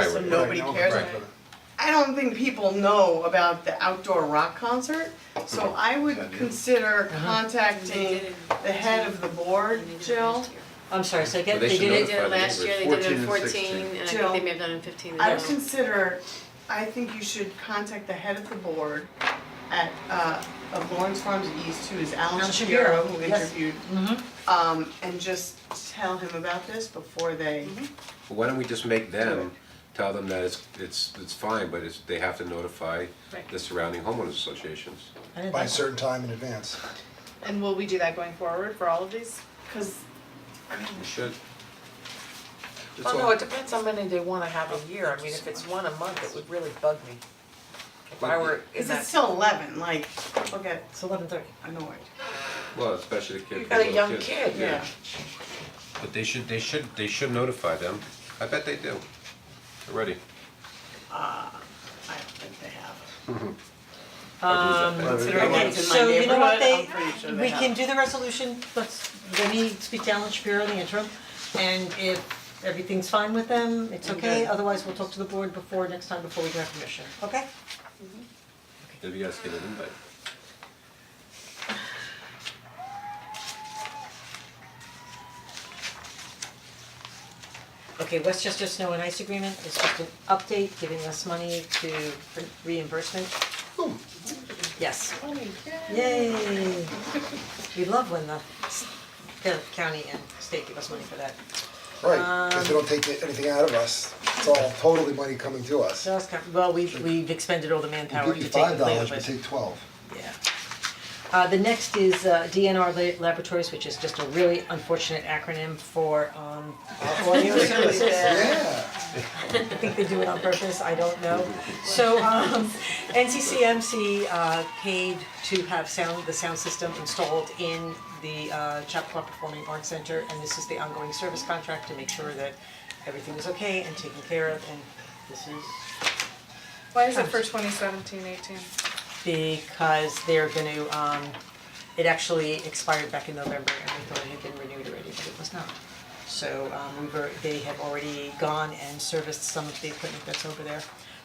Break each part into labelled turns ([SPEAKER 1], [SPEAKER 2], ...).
[SPEAKER 1] and nobody cares.
[SPEAKER 2] Right.
[SPEAKER 1] I don't think people know about the outdoor rock concert, so I would consider
[SPEAKER 3] Uh-huh.
[SPEAKER 1] contacting the head of the board, Jill.
[SPEAKER 3] I'm sorry, so again,
[SPEAKER 2] They
[SPEAKER 3] they
[SPEAKER 2] should
[SPEAKER 3] did
[SPEAKER 4] They
[SPEAKER 3] it,
[SPEAKER 4] did it last year, they did it
[SPEAKER 2] 14 and
[SPEAKER 4] in fourteen,
[SPEAKER 2] 16.
[SPEAKER 4] and I
[SPEAKER 1] Jill.
[SPEAKER 4] think they may have done it in fifteen
[SPEAKER 1] I would
[SPEAKER 4] as well.
[SPEAKER 1] consider, I think you should contact the head of the board at, uh, of Lawrence Farms East, who is Alan
[SPEAKER 3] Alan
[SPEAKER 1] Shapiro,
[SPEAKER 3] Shapiro,
[SPEAKER 1] who
[SPEAKER 3] yes.
[SPEAKER 1] interviewed.
[SPEAKER 3] Mhm.
[SPEAKER 1] Um, and just tell him about this before they,
[SPEAKER 3] Mm-hmm.
[SPEAKER 2] Well, Why don't we just make them, tell them that it's, it's, it's fine, but it's, they have to notify
[SPEAKER 4] Right.
[SPEAKER 2] the surrounding homeowners associations.
[SPEAKER 3] I didn't
[SPEAKER 5] by
[SPEAKER 3] think
[SPEAKER 5] a certain time in advance.
[SPEAKER 6] And will we do that going forward for all of these?
[SPEAKER 1] cause, I mean,
[SPEAKER 2] You should. That's
[SPEAKER 7] Well,
[SPEAKER 2] all.
[SPEAKER 7] Oh, no, it depends how many they wanna have a year, I mean, if it's one a month, it would really bug me. If I were in
[SPEAKER 1] cause it's
[SPEAKER 7] that,
[SPEAKER 1] still eleven, like, people get
[SPEAKER 3] It's eleven thirty.
[SPEAKER 1] annoyed.
[SPEAKER 2] Well, especially the kid,
[SPEAKER 7] you
[SPEAKER 2] the
[SPEAKER 7] got a
[SPEAKER 2] little
[SPEAKER 7] young
[SPEAKER 2] kids.
[SPEAKER 7] kid,
[SPEAKER 1] Yeah.
[SPEAKER 2] But they should, they should, they should notify them, I bet they do, already.
[SPEAKER 1] I don't think they have.
[SPEAKER 3] Um,
[SPEAKER 2] Consider
[SPEAKER 3] okay,
[SPEAKER 1] It's in my
[SPEAKER 3] so you know what, they,
[SPEAKER 1] neighborhood, I'm pretty sure they
[SPEAKER 3] we
[SPEAKER 1] have.
[SPEAKER 3] can do the resolution, let's, let me speak to Alan Shapiro in the interim. And if everything's fine with them, it's okay,
[SPEAKER 1] Okay.
[SPEAKER 3] otherwise we'll talk to the board before, next time before we do our commission, okay?
[SPEAKER 2] Maybe you guys get an invite.
[SPEAKER 3] Okay, Westchester Snow and Ice Agreement is just an update, giving us money to for reimbursement. Yes. Yay. We love when the s- the county and state give us money for that.
[SPEAKER 5] Right, because they don't take anything out of us, it's all totally money coming to us.
[SPEAKER 3] So that's kind, well, we've we've expended all the manpower
[SPEAKER 5] We
[SPEAKER 3] to
[SPEAKER 5] give you
[SPEAKER 3] take
[SPEAKER 5] five
[SPEAKER 3] it
[SPEAKER 5] dollars,
[SPEAKER 3] later,
[SPEAKER 5] we
[SPEAKER 3] but
[SPEAKER 5] take twelve.
[SPEAKER 3] yeah. Uh the next is uh DNR La- Laboratories, which is just a really unfortunate acronym for um audio services.
[SPEAKER 5] Yeah.
[SPEAKER 3] I think they do it on purpose, I don't know. So um NCCMC uh paid to have sound, the sound system installed in the uh Chappaqua Performing Arts Center and this is the ongoing service contract to make sure that everything is okay and taken care of and this is
[SPEAKER 6] Why is it for 2017, 18?
[SPEAKER 3] because they're gonna um it actually expired back in November and we thought it had been renewed already, but it was not. So um we were, they have already gone and serviced some of the equipment that's over there.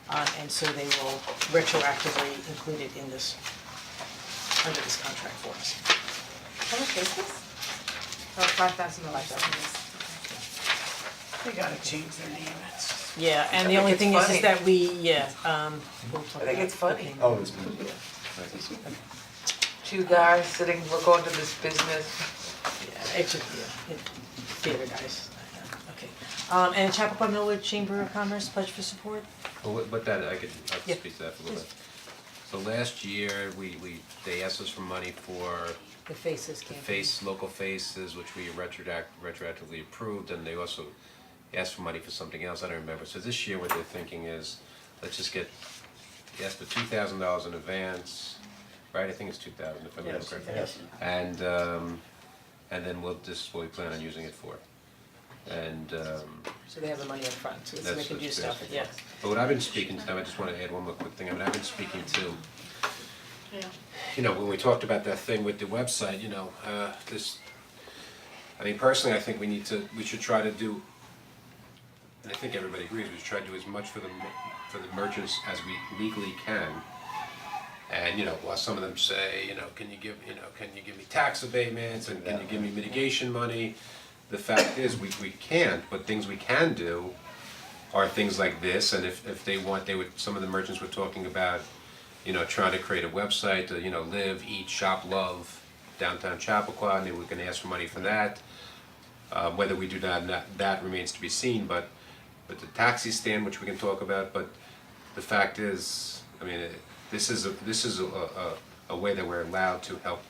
[SPEAKER 3] Um and so they will retroactively include it in this, under this contract for us.
[SPEAKER 6] How much is this? Oh, 5,000 dollars.
[SPEAKER 1] They gotta change their name, it's just-
[SPEAKER 3] Yeah, and
[SPEAKER 7] the I think only it's thing is- is funny. that
[SPEAKER 3] we, yeah, um we'll talk
[SPEAKER 7] I think it's
[SPEAKER 3] about
[SPEAKER 7] funny.
[SPEAKER 3] the payment.
[SPEAKER 2] Oh, it's been.
[SPEAKER 7] two guys sitting, we're going to this business,
[SPEAKER 3] Yeah, it should, yeah, it, theater guys, okay. Um and Chappaqua Millwood Chamber of Commerce pledge for support?
[SPEAKER 2] Well, what- what that, I could, I
[SPEAKER 3] Yeah.
[SPEAKER 2] could speak to that for a little bit. So last year, we, we, they asked us for money for
[SPEAKER 3] The faces
[SPEAKER 2] the
[SPEAKER 3] campaign.
[SPEAKER 2] face, local faces, which we retroact, retroactively approved, and they also asked for money for something else, I don't remember. So this year, what they're thinking is, let's just get, they asked for two thousand dollars in advance, right, I think it's two thousand, if I remember correctly. And um, and then we'll, this is what we plan on using it for. And um,
[SPEAKER 3] So they have the money up front, so
[SPEAKER 2] That's
[SPEAKER 3] they can
[SPEAKER 2] what's
[SPEAKER 3] do stuff,
[SPEAKER 2] basically-
[SPEAKER 3] yeah.
[SPEAKER 2] But what I've been speaking to them, I just wanna add one more quick thing, I mean, I've been speaking to,
[SPEAKER 4] Yeah.
[SPEAKER 2] you know, when we talked about that thing with the website, you know, uh, this, I mean, personally, I think we need to, we should try to do, and I think everybody agrees, we should try to do as much for the, mer- for the merchants as we legally can. And, you know, while some of them say, you know, can you give, you know, can you give me tax abatements, and can you give me mitigation money? The fact is, we, we can't, but things we can do are things like this, and if, if they want, they would, some of the merchants were talking about, you know, trying to create a website to, you know, live, eat, shop, love downtown Chappaqua, and they were gonna ask for money for that. Uh, whether we do that, or not, that remains to be seen, but, but the taxi stand, which we can talk about, but the fact is, I mean, it- this is, a this is a, a, a way that we're allowed to help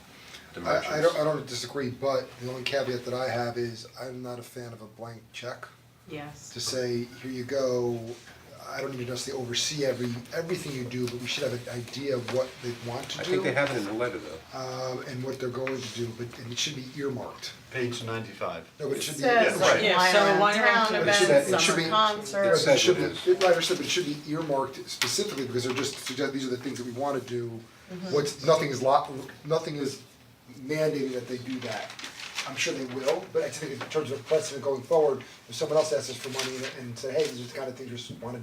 [SPEAKER 2] the merchants.
[SPEAKER 5] I, I don't, uh, I don't disagree, but the only caveat that I have is I'm not a fan of a blank check.
[SPEAKER 6] Yes.
[SPEAKER 5] To say, here you go, I don't even necessarily oversee every, everything you do, but we should have an idea of what they want to do.
[SPEAKER 2] I think they have it in the letter though.
[SPEAKER 5] um, and what they're going to do, but and it should be earmarked.
[SPEAKER 8] Page ninety-five.
[SPEAKER 5] No, but it should be.
[SPEAKER 1] says
[SPEAKER 5] it should-
[SPEAKER 1] like
[SPEAKER 3] Yeah,
[SPEAKER 1] wine
[SPEAKER 3] so
[SPEAKER 1] around
[SPEAKER 3] wine around
[SPEAKER 1] town
[SPEAKER 3] town.
[SPEAKER 5] It should-
[SPEAKER 1] events,
[SPEAKER 5] it should
[SPEAKER 1] summer
[SPEAKER 5] be-
[SPEAKER 2] It
[SPEAKER 1] concerts.
[SPEAKER 2] says
[SPEAKER 5] It
[SPEAKER 2] what
[SPEAKER 5] should be,
[SPEAKER 2] it is.
[SPEAKER 5] it- I understand, but it should be earmarked specifically because they're just suggest, these are the things that we wanna do. What's, nothing is lot, nothing is mandated that they do that. I'm sure they will, but I think in terms of precedent going forward, if someone else asks us for money and- and say, hey, these are the kind of things we just wanna